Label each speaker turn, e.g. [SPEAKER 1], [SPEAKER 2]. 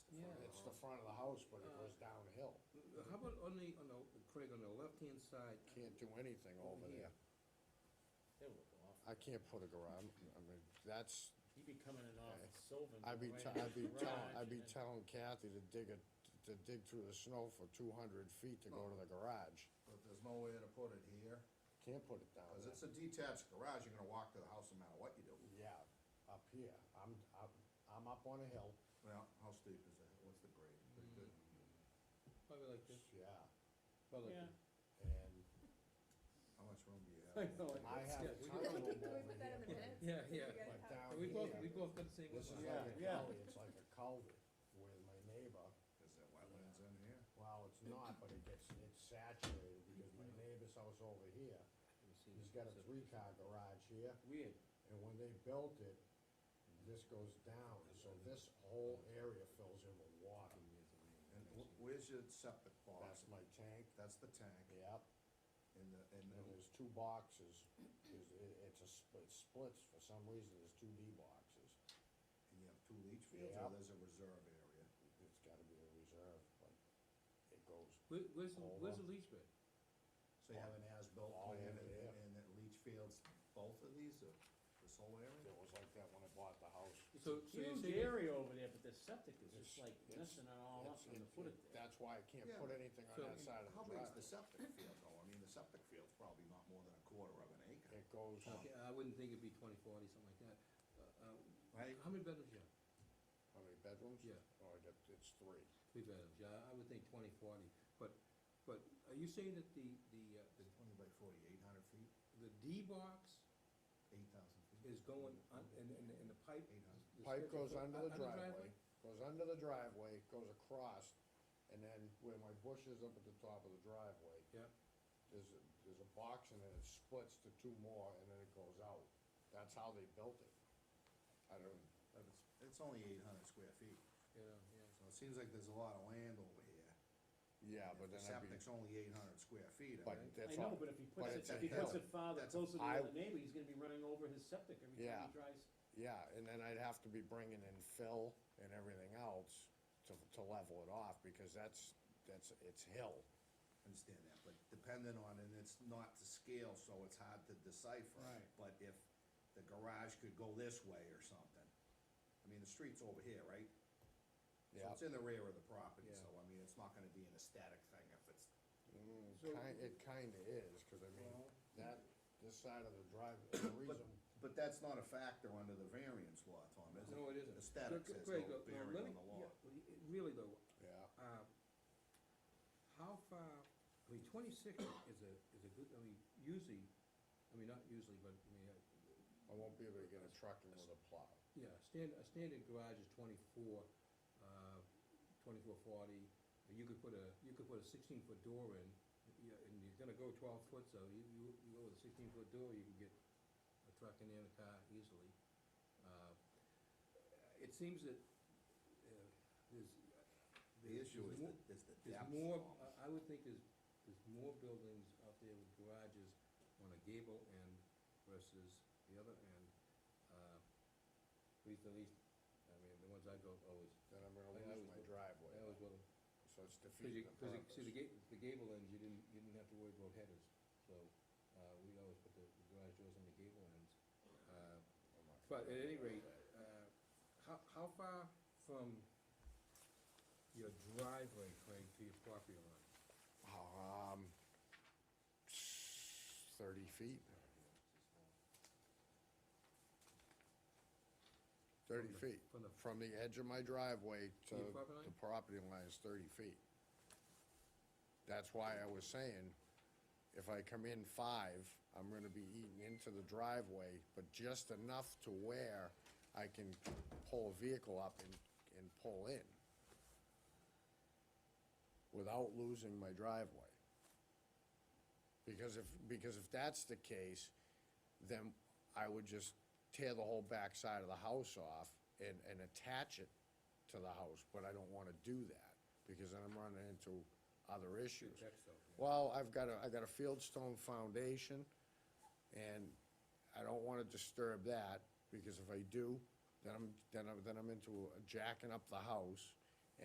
[SPEAKER 1] front of the house, but it goes downhill.
[SPEAKER 2] How about on the, on the, Craig, on the left-hand side,
[SPEAKER 1] Can't do anything over
[SPEAKER 2] Over here.
[SPEAKER 1] there. I can't put a garage, I mean, that's,
[SPEAKER 3] He'd be coming in off
[SPEAKER 1] Okay.
[SPEAKER 3] Sylvan.
[SPEAKER 1] I'd be,
[SPEAKER 3] right
[SPEAKER 1] te-
[SPEAKER 3] in
[SPEAKER 1] I'd be
[SPEAKER 3] the
[SPEAKER 1] telling, I'd
[SPEAKER 3] garage
[SPEAKER 1] be telling Kathy
[SPEAKER 3] and then-
[SPEAKER 1] to dig it, to dig through the snow for two hundred feet to go to the garage.
[SPEAKER 4] But there's no way to put it here,
[SPEAKER 1] Can't put it down
[SPEAKER 4] cause
[SPEAKER 1] there.
[SPEAKER 4] it's a detached garage, you're gonna walk to the house no matter what you do.
[SPEAKER 1] Yeah, up here, I'm, I'm, I'm up on a hill,
[SPEAKER 4] Well, how steep is that, what's the grade? Pretty good.
[SPEAKER 1] Mm.
[SPEAKER 2] probably like this,
[SPEAKER 1] yeah,
[SPEAKER 2] probably like
[SPEAKER 3] Yeah.
[SPEAKER 2] this.
[SPEAKER 1] and
[SPEAKER 4] How much room do you
[SPEAKER 2] I
[SPEAKER 4] have?
[SPEAKER 2] know, I
[SPEAKER 1] I
[SPEAKER 2] know, yeah,
[SPEAKER 1] have a
[SPEAKER 2] we
[SPEAKER 1] ton
[SPEAKER 2] got-
[SPEAKER 1] of them
[SPEAKER 5] Can we
[SPEAKER 1] over
[SPEAKER 5] put that in
[SPEAKER 1] here,
[SPEAKER 5] the minutes?
[SPEAKER 2] Yeah,
[SPEAKER 5] If we
[SPEAKER 2] yeah.
[SPEAKER 5] get it
[SPEAKER 1] but
[SPEAKER 5] out.
[SPEAKER 1] down
[SPEAKER 2] We both, we
[SPEAKER 1] here,
[SPEAKER 2] both got the same.
[SPEAKER 1] this is
[SPEAKER 2] one.
[SPEAKER 1] like
[SPEAKER 3] Yeah,
[SPEAKER 1] a
[SPEAKER 3] yeah.
[SPEAKER 1] gully, it's like a culvert, where my neighbor,
[SPEAKER 4] Is there wetlands in here?
[SPEAKER 1] well, it's not, but it gets, it's saturated, because my neighbor's house over here, he's got a three-car garage here,
[SPEAKER 2] Weird.
[SPEAKER 1] and when they built it, this goes down, so this whole area fills in with water.
[SPEAKER 4] And wh- where's your septic
[SPEAKER 1] That's
[SPEAKER 4] box?
[SPEAKER 1] my tank,
[SPEAKER 4] That's the tank,
[SPEAKER 1] yep,
[SPEAKER 4] and the, and
[SPEAKER 1] and
[SPEAKER 4] the-
[SPEAKER 1] there's two boxes, there's, it, it's a, sp- it splits, for some reason, there's two D boxes.
[SPEAKER 4] and you have two leach fields, or
[SPEAKER 1] Mm-hmm. Yeah.
[SPEAKER 4] there's a reserve area.
[SPEAKER 1] It's gotta be a reserve, but it goes
[SPEAKER 2] Where, where's, the- where's
[SPEAKER 1] Over.
[SPEAKER 2] the leach bed?
[SPEAKER 4] So you have an as-built
[SPEAKER 1] All
[SPEAKER 4] plan
[SPEAKER 1] in
[SPEAKER 4] and,
[SPEAKER 1] there.
[SPEAKER 4] and the leach fields, both of these, or this whole area?
[SPEAKER 1] It was like that when I bought the house.
[SPEAKER 3] It's
[SPEAKER 2] So-
[SPEAKER 3] a
[SPEAKER 2] so you're
[SPEAKER 3] huge
[SPEAKER 2] saying-
[SPEAKER 3] area over there, but the septic is
[SPEAKER 1] It's-
[SPEAKER 3] just like
[SPEAKER 1] it's-
[SPEAKER 3] messing it all up
[SPEAKER 1] It's-
[SPEAKER 3] on the
[SPEAKER 1] it-
[SPEAKER 3] foot of
[SPEAKER 1] it-
[SPEAKER 3] it.
[SPEAKER 1] That's why I can't
[SPEAKER 4] Yeah,
[SPEAKER 1] put anything on
[SPEAKER 2] so-
[SPEAKER 1] that side of the
[SPEAKER 4] How big is the
[SPEAKER 1] driveway.
[SPEAKER 4] septic field though? I mean, the septic field's probably not more than a quarter of an acre.
[SPEAKER 1] It goes,
[SPEAKER 2] Okay, I wouldn't think it'd be twenty, forty, something like that. Uh, uh,
[SPEAKER 4] Right.
[SPEAKER 2] How many bedrooms you have?
[SPEAKER 1] how many bedrooms?
[SPEAKER 2] Yeah.
[SPEAKER 1] Oh, I got, it's three.
[SPEAKER 2] Three bedrooms, yeah, I would think twenty, forty, but, but are you saying that the, the, uh, the
[SPEAKER 4] Twenty by forty, eight hundred feet,
[SPEAKER 2] the D box
[SPEAKER 4] eight thousand feet.
[SPEAKER 2] is going, un- and, and, and the pipe?
[SPEAKER 4] Eight hundred.
[SPEAKER 2] the
[SPEAKER 1] Pipe
[SPEAKER 2] stretcher
[SPEAKER 1] goes
[SPEAKER 2] foot
[SPEAKER 1] under
[SPEAKER 2] un-
[SPEAKER 1] the driveway, goes under the driveway, goes across, and then where my bush is up at the top of the driveway,
[SPEAKER 2] Yeah,
[SPEAKER 1] there's, a- there's a box and then it splits to two more and then it goes out. That's how they built it. I don't,
[SPEAKER 4] But it's, it's only eight hundred square feet,
[SPEAKER 2] yeah, yeah.
[SPEAKER 4] so it seems like there's a lot of land over here.
[SPEAKER 1] yeah,
[SPEAKER 4] If
[SPEAKER 1] but
[SPEAKER 4] The
[SPEAKER 1] then I'd be,
[SPEAKER 4] septic's only eight hundred square feet, I
[SPEAKER 1] but
[SPEAKER 4] mean,
[SPEAKER 1] that's
[SPEAKER 3] I
[SPEAKER 1] all.
[SPEAKER 3] know, but if he puts it,
[SPEAKER 1] it's a
[SPEAKER 3] if he puts
[SPEAKER 1] hill.
[SPEAKER 3] it farther,
[SPEAKER 4] That's a-
[SPEAKER 3] closer to
[SPEAKER 1] I-
[SPEAKER 3] the other neighbor, he's gonna be running over his septic every
[SPEAKER 1] Yeah.
[SPEAKER 3] time he drives.
[SPEAKER 1] Yeah, and then I'd have to be bringing in fill and everything else to, to level it off, because that's, that's, it's hill.
[SPEAKER 4] understand that, but dependent on, and it's not to scale, so it's hard to decipher.
[SPEAKER 3] Right.
[SPEAKER 4] But if the garage could go this way or something, I mean, the street's over here, right? So
[SPEAKER 1] Yeah.
[SPEAKER 4] it's in the rear of the property,
[SPEAKER 2] Yeah.
[SPEAKER 4] so I mean, it's not gonna be an aesthetic thing if it's,
[SPEAKER 1] Mm,
[SPEAKER 2] So-
[SPEAKER 1] ki- it kinda is, cause I mean,
[SPEAKER 2] Well-
[SPEAKER 1] that, this side of the drive, the
[SPEAKER 4] but,
[SPEAKER 1] reason,
[SPEAKER 4] but that's not a factor under the variance law, Tom, is it?
[SPEAKER 2] No, it isn't.
[SPEAKER 4] Aesthetics
[SPEAKER 2] Look,
[SPEAKER 4] has
[SPEAKER 2] Craig,
[SPEAKER 4] no
[SPEAKER 2] look, now
[SPEAKER 4] bearing
[SPEAKER 2] uh, let
[SPEAKER 4] on
[SPEAKER 2] me-
[SPEAKER 4] the law.
[SPEAKER 2] yeah, well, it- Really though,
[SPEAKER 1] yeah,
[SPEAKER 2] uh, how far, I mean, twenty-six is a, is a good, I mean, usually, I mean, not usually, but, I mean, uh,
[SPEAKER 1] I won't be able to get a truck in with a plow.
[SPEAKER 2] Yeah, a stand, a standard garage is twenty-four, uh, twenty-four forty, you could put a, you could put a sixteen-foot door in, yeah, and you're gonna go twelve foot, so you, you, you go with a sixteen-foot door, you can get a truck in there and a car easily. Uh, It seems that, uh, there's.
[SPEAKER 4] The issue is
[SPEAKER 2] more-
[SPEAKER 4] the, is the
[SPEAKER 2] There's
[SPEAKER 4] depth.
[SPEAKER 2] more,
[SPEAKER 4] Tom.
[SPEAKER 2] I, I would think there's, there's more buildings out there with garages on a gable end versus the other end. Uh, At least, at least, I mean, the ones I go, always,
[SPEAKER 1] Then I'm gonna
[SPEAKER 2] I
[SPEAKER 1] lose
[SPEAKER 2] always
[SPEAKER 1] my
[SPEAKER 2] will- I
[SPEAKER 1] driveway,
[SPEAKER 2] always will,
[SPEAKER 1] so it's
[SPEAKER 2] cause you,
[SPEAKER 1] defeating the
[SPEAKER 2] cause you, see, the
[SPEAKER 1] purpose.
[SPEAKER 2] gate, the gable ends, you didn't, you didn't have to worry about headers, so, uh, we always put the the garage doors on the gable ends. Uh,
[SPEAKER 1] I'm not-
[SPEAKER 2] But at any rate, uh, how, how far from your driveway, Craig, to your property line?
[SPEAKER 1] Um, thirty feet.
[SPEAKER 2] From
[SPEAKER 1] Thirty
[SPEAKER 2] the-
[SPEAKER 1] feet,
[SPEAKER 2] from the-
[SPEAKER 1] from the edge of my driveway
[SPEAKER 2] To
[SPEAKER 1] to
[SPEAKER 2] your property line?
[SPEAKER 1] the property line is thirty feet. That's why I was saying, if I come in five, I'm gonna be eating into the driveway, but just enough to where I can pull a vehicle up and, and pull in without losing my driveway. Because if, because if that's the case, then I would just tear the whole back side of the house off and, and attach it to the house, but I don't wanna do that, because then I'm running into other issues.
[SPEAKER 2] Check stuff, yeah.
[SPEAKER 1] Well, I've got a, I got a fieldstone foundation, and I don't wanna disturb that, because if I do, then I'm, then I'm, then I'm into jacking up the house,